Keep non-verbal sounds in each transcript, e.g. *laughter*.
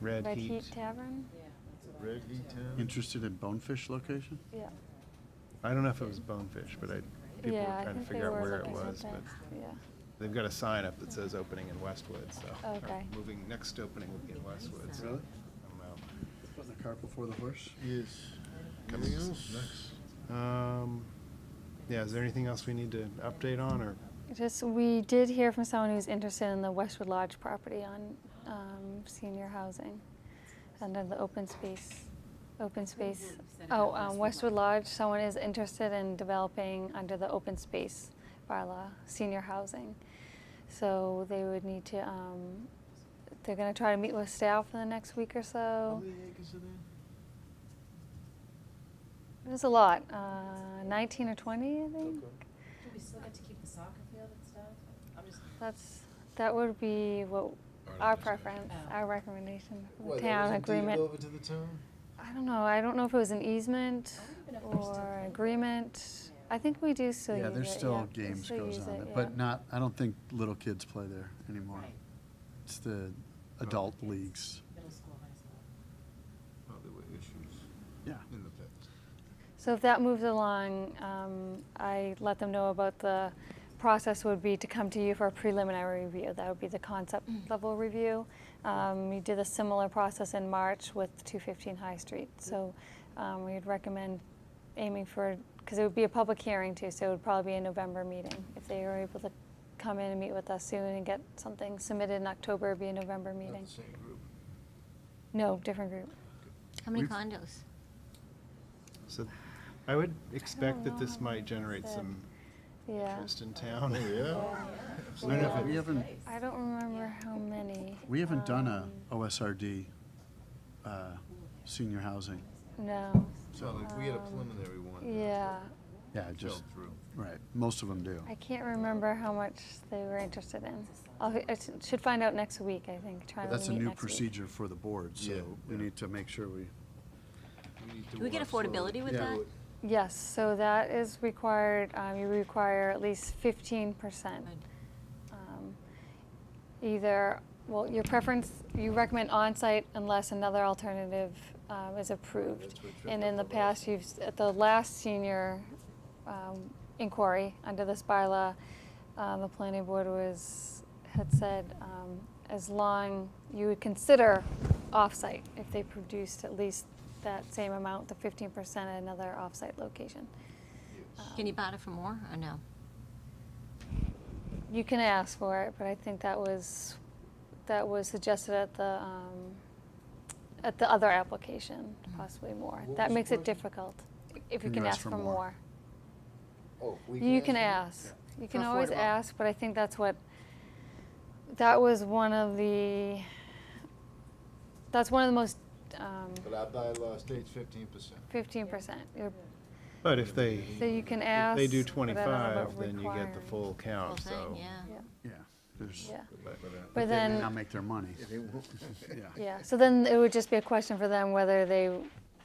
Red Red Heat. Heat Tavern? Red Heat Town? Interested in Bonefish location? Yeah. I don't know if it was Bonefish, but I, people were Yeah, trying I to think they figure out were where it looking at was, that. but Yeah, they've got a sign up that says opening in Westwood, so. or Okay. Moving, next opening will be in Westwood, so. Um, Really? I don't know. Oh. Wasn't the cart before the horse? Is, anything else? Um, yeah, is there anything else we need to update on, or just, we did hear from someone who's interested in the Westwood Lodge property on um, senior housing under the open space, open space. said Oh, about um, Westwood Lodge, someone is interested in developing under the open space bylaw, senior housing. So they would need to, um, they're gonna try to meet with staff in the next week or How so. many acres are there? There's a lot, uh, 19 or 20, I think. Do we still get to keep the soccer field and stuff? I'm just, That's, that would be what, Our our recommendation. preference, Oh. our recommendation, for the What, that town wasn't deeded agreement. Over to the town? I don't know, I don't know if it was an easement I don't even know if they're still or an playing. agreement. Yeah. I think we do still use it, Yeah, yeah. there's still we games still goes use on it, yeah. but not, I don't think little kids play there anymore. right, It's the adult leagues. middle school, high school. Oh, there were issues Yeah. in the past. So if that moves along, um, I let them know about the process would be to come to you for a preliminary review. That would be the concept level review. Um, we did a similar process in March with 215 High Street. So um, we'd recommend aiming for, because it would be a public hearing too, so it would probably be a November meeting. If they were able to come in and meet with us soon and get something submitted in October, it'd be a November Not meeting. the same group. No, different group. How many We've- condos? so? I would expect that know this how might many generate said. some Yeah. interest in town. Oh, yeah? I don't know if We it- haven't, I don't remember how many. we haven't done a um, OSRD, uh, senior housing. No. So like, we had a Um, preliminary one. that Yeah, Yeah, Fell just, through. right, most of them do. I can't remember how much they were interested in. I'll, I s- should find out next week, I think, try But to that's a meet new next week. procedure for the board, Yeah, so we yeah. need to make sure we, need to Do we get work slowly. affordability with Yeah. that? Yes, so that is required, um, you require at least fifteen percent. Um, Either, well, your preference, you recommend on-site unless another alternative, um, is approved. that's what tripped And up in the the past, last- you've, s- at the last senior, um, inquiry under this bylaw, um, the planning board was, had said, um, as long, you would consider off-site if they produced at least that same amount, the fifteen percent at another off-site location. Yes. Uh, Can you bother for more or no? You can ask for it, but I think that was, that was suggested at the, um, at the other application, possibly more. What That was the makes it question? difficult, if you can ask for more. Oh, we You can them? ask, you For can always affordable. ask, but I think that's what, that was one of the, that's one of the most, um, But our bylaw states fifteen percent. fifteen percent. *laughs* But if they, So you can if ask. they do but I don't know about twenty-five, then you get the requiring. full Whole count, Oh, so. thing, yeah. Yeah. Yeah, there's, Yeah. they But may then. not make their money, *laughs* yeah. Yeah, so then it would just be a question for them whether they,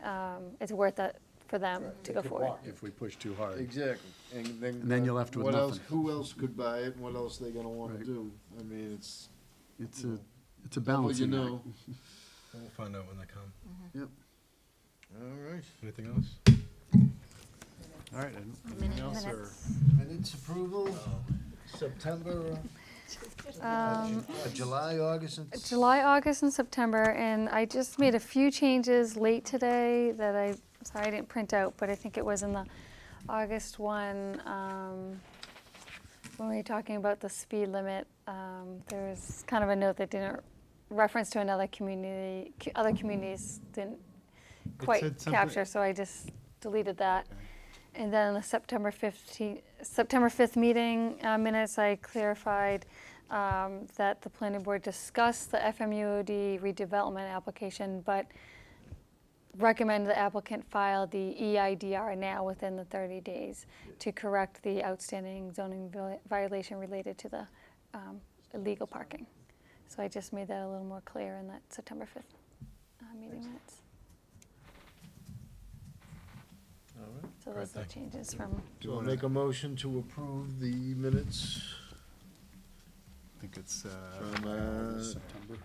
um, it's worth it for them Right, to they go could forward. walk. If we push too hard. *laughs* Exactly, and then. And then you're left with what else- nothing. Who else could buy it, and what else they gonna wanna Right. do? I mean, it's, It's a, it's a well, you balancing act. *laughs* know. We'll find out when they come. Mm-hmm. Yep. All right. Anything else? All right, and anything else, or Minutes approval, Um, September, Um, uh, July, August, and. Uh, July, August, and September, and I just made a few changes late today that I, sorry, I didn't print out, but I think it was in the August one, um, when we were talking about the speed limit, um, there was kind of a note that didn't reference to another community, co- other communities didn't said quite something- capture, so I just deleted that. And then the September 15, September 5th meeting uh, minutes, I clarified um, that the planning board discussed the FMUOD redevelopment application, but recommend the applicant file the E EIDR now within the 30 days to correct the outstanding zoning viola- violation related to the um, illegal parking. So I just made that a little more clear in that September 5th uh, meeting minutes. All right. So those are the changes from, Do I make a motion to approve the minutes I think it's, uh. from, uh, September.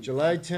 July tenth?